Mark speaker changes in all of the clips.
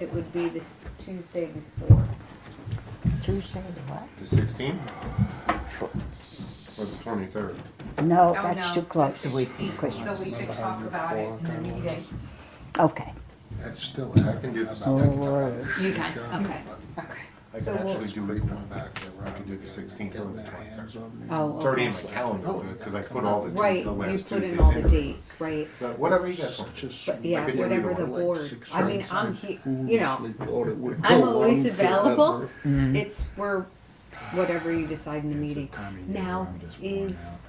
Speaker 1: It would be this Tuesday before.
Speaker 2: Tuesday, the what?
Speaker 3: The sixteenth? Or the twenty-third?
Speaker 2: No,
Speaker 4: Oh, no,
Speaker 2: that's too close
Speaker 4: this
Speaker 2: to week
Speaker 4: is
Speaker 2: for Christmas.
Speaker 4: So we could talk about it in the meeting.
Speaker 2: Okay,
Speaker 5: That's still.
Speaker 3: I can do the
Speaker 2: oh,
Speaker 3: sixteenth.
Speaker 2: word.
Speaker 4: You can, okay, okay.
Speaker 3: I
Speaker 1: So
Speaker 3: can
Speaker 1: we'll-
Speaker 3: actually do the
Speaker 5: back there.
Speaker 3: I can do the 16th or the 23rd.
Speaker 1: Oh,
Speaker 3: It's already in my
Speaker 1: okay.
Speaker 3: calendar, because I put all the,
Speaker 1: Right,
Speaker 3: the
Speaker 1: you
Speaker 3: last
Speaker 1: put
Speaker 3: Tuesdays
Speaker 1: in all the
Speaker 3: in.
Speaker 1: dates, right?
Speaker 3: But whatever you guys want.
Speaker 1: But yeah,
Speaker 3: could do
Speaker 1: whatever
Speaker 3: either
Speaker 1: the
Speaker 3: one.
Speaker 1: board, I mean, I'm, he- you know,
Speaker 5: know,
Speaker 1: I'm always available.
Speaker 2: Mm-hmm.
Speaker 1: It's, we're, whatever you decide in the meeting. Now is,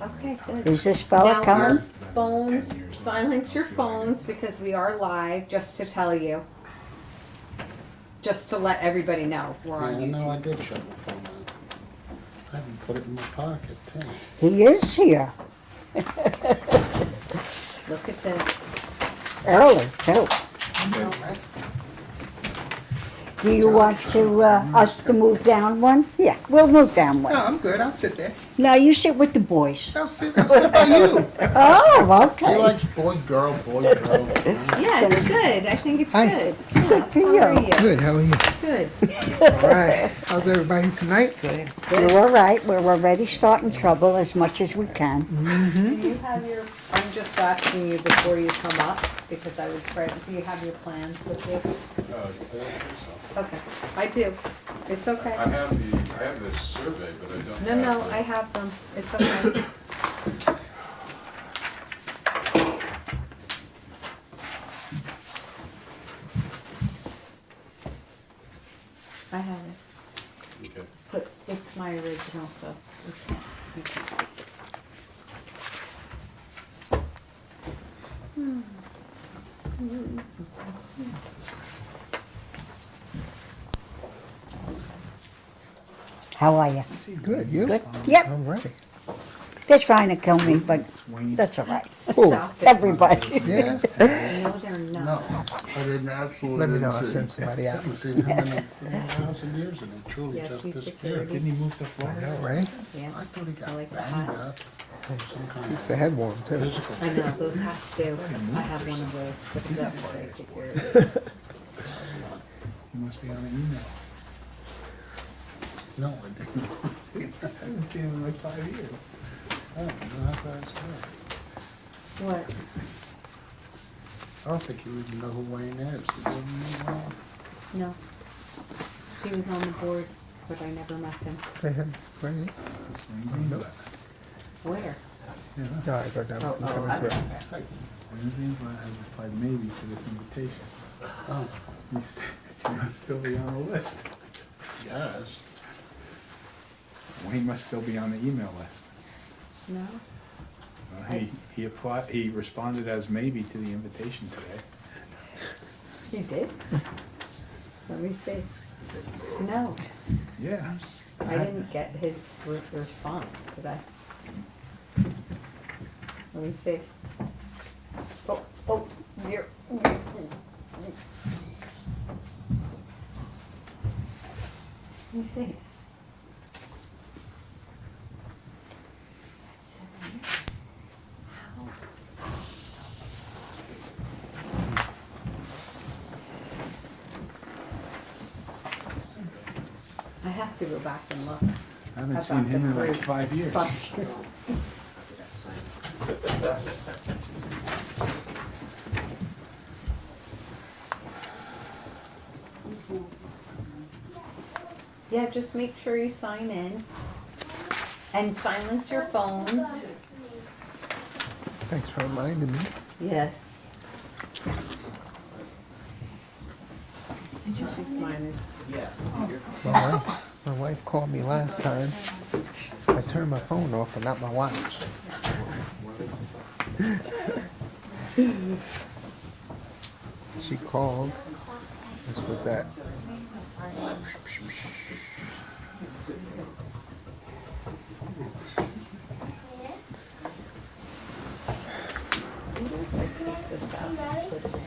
Speaker 1: okay, good.
Speaker 2: Is this fella
Speaker 1: Now-
Speaker 2: coming?
Speaker 1: Phones, silence your phones because we are live, just to tell you. Just to let everybody know, we're on
Speaker 5: Yeah, no, I
Speaker 1: YouTube.
Speaker 5: did shut my phone out. I didn't put it in my pocket, too.
Speaker 2: He is here,
Speaker 1: Look at this.
Speaker 2: early too. Do you want to, uh, us to move down one? Yeah, we'll move down
Speaker 5: No,
Speaker 2: one.
Speaker 5: I'm good, I'll sit there.
Speaker 2: Now you sit with the boys.
Speaker 5: I'll sit, I'll sit by you.
Speaker 2: Oh,
Speaker 5: He
Speaker 2: okay.
Speaker 5: likes boy, girl, boy, girl.
Speaker 1: Yeah, it's good, I think it's
Speaker 6: Hi.
Speaker 1: good.
Speaker 2: Good for
Speaker 1: How are
Speaker 2: you.
Speaker 1: you?
Speaker 6: Good, how are you?
Speaker 1: Good.
Speaker 6: All right. How's everybody tonight?
Speaker 2: You're all right, we're already starting trouble as much as we can.
Speaker 1: Do you have your, I'm just asking you before you come up, because I would, try- do you have your plans with you? Okay, I do, it's
Speaker 7: Uh, I
Speaker 1: okay.
Speaker 7: have the, I have the survey, but I don't have.
Speaker 1: No, no,
Speaker 7: the-
Speaker 1: I have them, it's okay. I have it,
Speaker 7: okay.
Speaker 1: but it's my original, so you can't, you can't take it.
Speaker 2: How are you?
Speaker 6: Good, you?
Speaker 2: Good? Yep,
Speaker 6: All right.
Speaker 2: they're trying to kill me, but that's all right.
Speaker 1: Stop it.
Speaker 2: Everybody.
Speaker 6: Yeah,
Speaker 1: No, they're
Speaker 5: No,
Speaker 1: not.
Speaker 5: I didn't absolutely.
Speaker 6: let me know,
Speaker 5: didn't
Speaker 6: I'll
Speaker 5: see.
Speaker 6: send somebody out.
Speaker 5: haven't seen him in a in a thousand years, and he truly
Speaker 1: Yes,
Speaker 5: just
Speaker 1: he's
Speaker 5: disappeared.
Speaker 1: security,
Speaker 6: I know, right?
Speaker 1: yeah.
Speaker 5: I thought he got
Speaker 1: I like the
Speaker 5: banged
Speaker 1: hot.
Speaker 5: up. Some kind
Speaker 6: Keeps
Speaker 5: of
Speaker 6: the head warm too.
Speaker 5: physical.
Speaker 1: I know, those have to do. I have one of those, but it doesn't say security.
Speaker 5: He must be on an email. No, I didn't. I haven't seen him in like five years. I don't know how far it's gone.
Speaker 1: What?
Speaker 5: I don't think you even know who Wayne is. He doesn't know him.
Speaker 1: No. He was on the board, but I never met him.
Speaker 6: Say hi, Brittany. No,
Speaker 1: Where?
Speaker 6: no, I thought that was
Speaker 1: Oh, oh,
Speaker 6: coming through.
Speaker 8: Wednesday, but I have replied maybe to this invitation.
Speaker 5: Oh,
Speaker 8: You st- you must still be on the list.
Speaker 5: yes.
Speaker 8: Wayne must still be on the email list.
Speaker 1: No?
Speaker 8: Uh, He, he applied, he responded as maybe to the invitation today.
Speaker 1: He did? Let me see. No,
Speaker 8: Yeah.
Speaker 1: I didn't get his re- response today. Let me see. Oh, oh, you're. Let me see. That's so weird. How? I have to go back and look.
Speaker 8: I haven't seen him in like five years.
Speaker 1: But Yeah, just make sure you sign in and silence your phones.
Speaker 6: Thanks for reminding me.
Speaker 1: Yes. Did you shoot mine?
Speaker 6: My wife, my wife called me last time. I turned my phone off, but not my watch. She called. That's what that.
Speaker 1: I think I take this out.